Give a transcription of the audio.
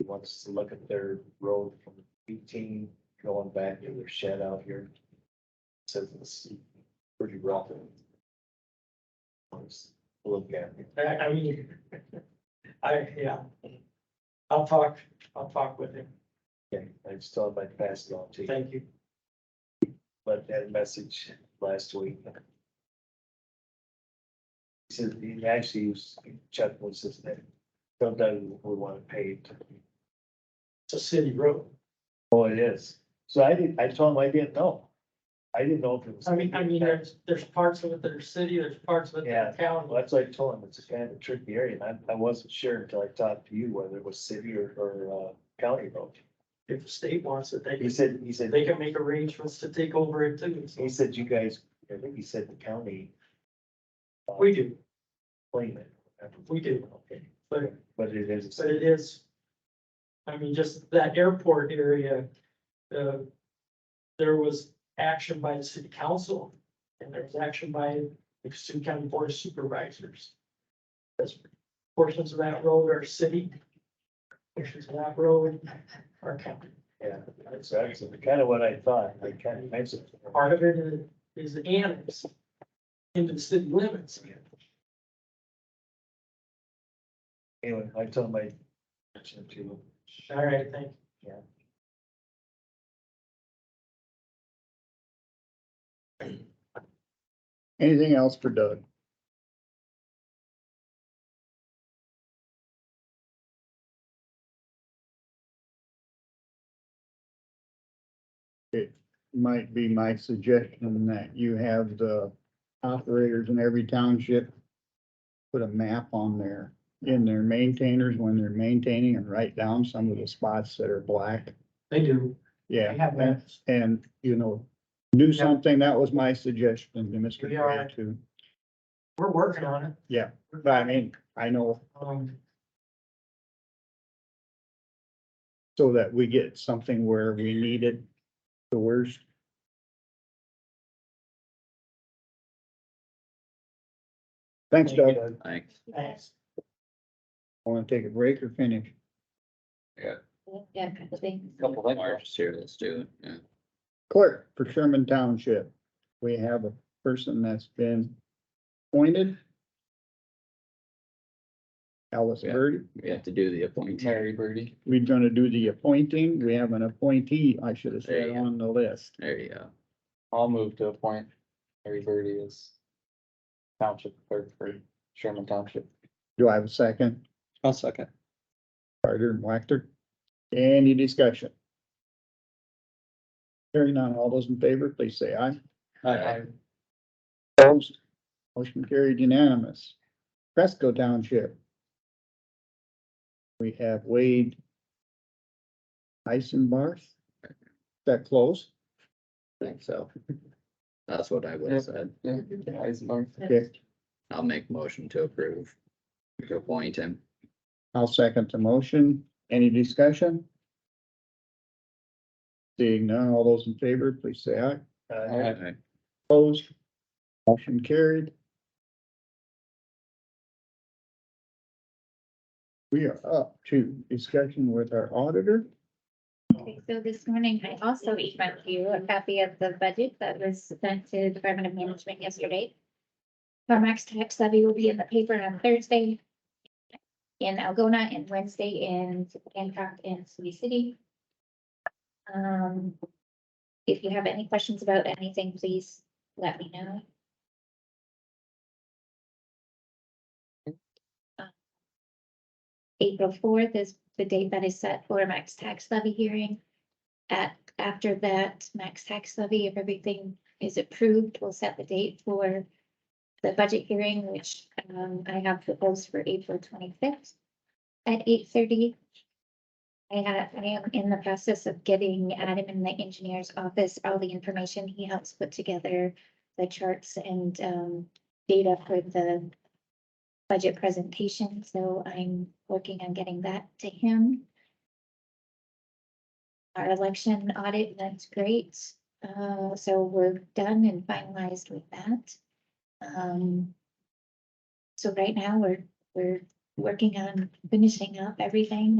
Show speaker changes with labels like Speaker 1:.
Speaker 1: wants to look at their road from eighteen going back to their shed out here. Says it's pretty rough. Let's Look at it.
Speaker 2: I, I mean, I, yeah. I'll talk, I'll talk with him.
Speaker 1: Okay, I just thought if I'd pass it on to you,
Speaker 2: Thank you.
Speaker 1: but that message last week. He said, he actually used, Chuck was just that, sometimes we want it paved.
Speaker 2: It's a city road.
Speaker 1: Oh, it is. So I didn't, I told him I didn't know. I didn't know if it was.
Speaker 2: I mean, I mean, there's, there's parts of it that are city, there's parts of it that are
Speaker 1: Well,
Speaker 2: county.
Speaker 1: That's what I told him. It's a kind of a tricky area. And I, I wasn't sure until I talked to you whether it was city or, or, uh, county road.
Speaker 2: If the state wants it, they
Speaker 1: He
Speaker 2: can,
Speaker 1: said, he said,
Speaker 2: they can make arrangements to take over it too. So
Speaker 1: he said, you guys, I think he said the county
Speaker 2: We do,
Speaker 1: claim it.
Speaker 2: We do.
Speaker 1: Okay.
Speaker 2: but,
Speaker 1: But it is. a
Speaker 2: but
Speaker 1: city.
Speaker 2: it is. I mean, just that airport area, uh, there was action by the city council and there was action by the Sioux County Board of Supervisors. As portions of that road are city, portions of that road are county.
Speaker 1: Yeah, that's, that's kind of what I thought. They kind of mentioned.
Speaker 2: Part of it is- is annexed into the city limits.
Speaker 1: Anyway, I told him I mentioned it to him.
Speaker 2: All right, thank you.
Speaker 3: Anything else for Doug? It might be my suggestion that you have the operators in every township put a map on there, in their maintainers when they're maintaining and write down some of the spots that are black.
Speaker 2: They do.
Speaker 3: Yeah.
Speaker 2: They have that.
Speaker 3: And, you know, do something. That was my suggestion to Mr.
Speaker 2: Yeah, I-
Speaker 3: Grant too.
Speaker 2: We're working on it.
Speaker 3: But I mean, I know
Speaker 2: Um,
Speaker 3: so that we get something where we need it the worst. Thanks, Doug.
Speaker 4: Thanks.
Speaker 2: thanks.
Speaker 3: Want to take a break or finish?
Speaker 5: Yeah, I think.
Speaker 4: Couple things. Marge here, let's do it, yeah.
Speaker 3: Clerk for Sherman Township. We have a person that's been appointed. Alice
Speaker 4: Yeah.
Speaker 3: Bird.
Speaker 4: We have to do the appointee. Mary Birdie.
Speaker 3: We're gonna do the appointing. We have an appointee, I should have
Speaker 4: There
Speaker 3: said,
Speaker 4: you go.
Speaker 3: on the list.
Speaker 4: There you go.
Speaker 6: I'll move to appoint Harry Birdie as township clerk for Sherman Township.
Speaker 3: Do I have a second?
Speaker 4: I'll second.
Speaker 3: Carter and Whacter? Any discussion? Hearing none, all those in favor, please say aye.
Speaker 4: Aye.
Speaker 3: Opposed? Motion carried unanimous. Fresco Township. We have Wade Eisenbarth. Is that close?
Speaker 4: Think so. That's what I would have said.
Speaker 6: Yeah, Eisenbarth.
Speaker 3: Okay,
Speaker 4: I'll make motion to approve. To appoint him.
Speaker 3: I'll second the motion. Any discussion? Seeing none, all those in favor, please say aye.
Speaker 1: Uh,
Speaker 6: Aye.
Speaker 4: Aye.
Speaker 3: Opposed? Motion carried. We are up to discussion with our auditor.
Speaker 5: Okay, So this morning, I also emailed you a copy of the budget that was sent to the Department of Management yesterday. Farmex tax levy will be in the paper on Thursday in Algona and Wednesday in Hancock and Sioux City. Um, if you have any questions about anything, please let me know. April fourth is the date that is set for a max tax levy hearing. At, after that, max tax levy, if everything is approved, we'll set the date for the budget hearing, which, um, I have proposed for April twenty-fifth at eight thirty. I have, I am in the process of getting Adam in the engineer's office all the information. He helps put together the charts and, um, data for the budget presentation, so I'm working on getting that to him. Our election audit, that's great. Uh, so we're done and finalized with that. Um, so right now, we're, we're working on finishing up everything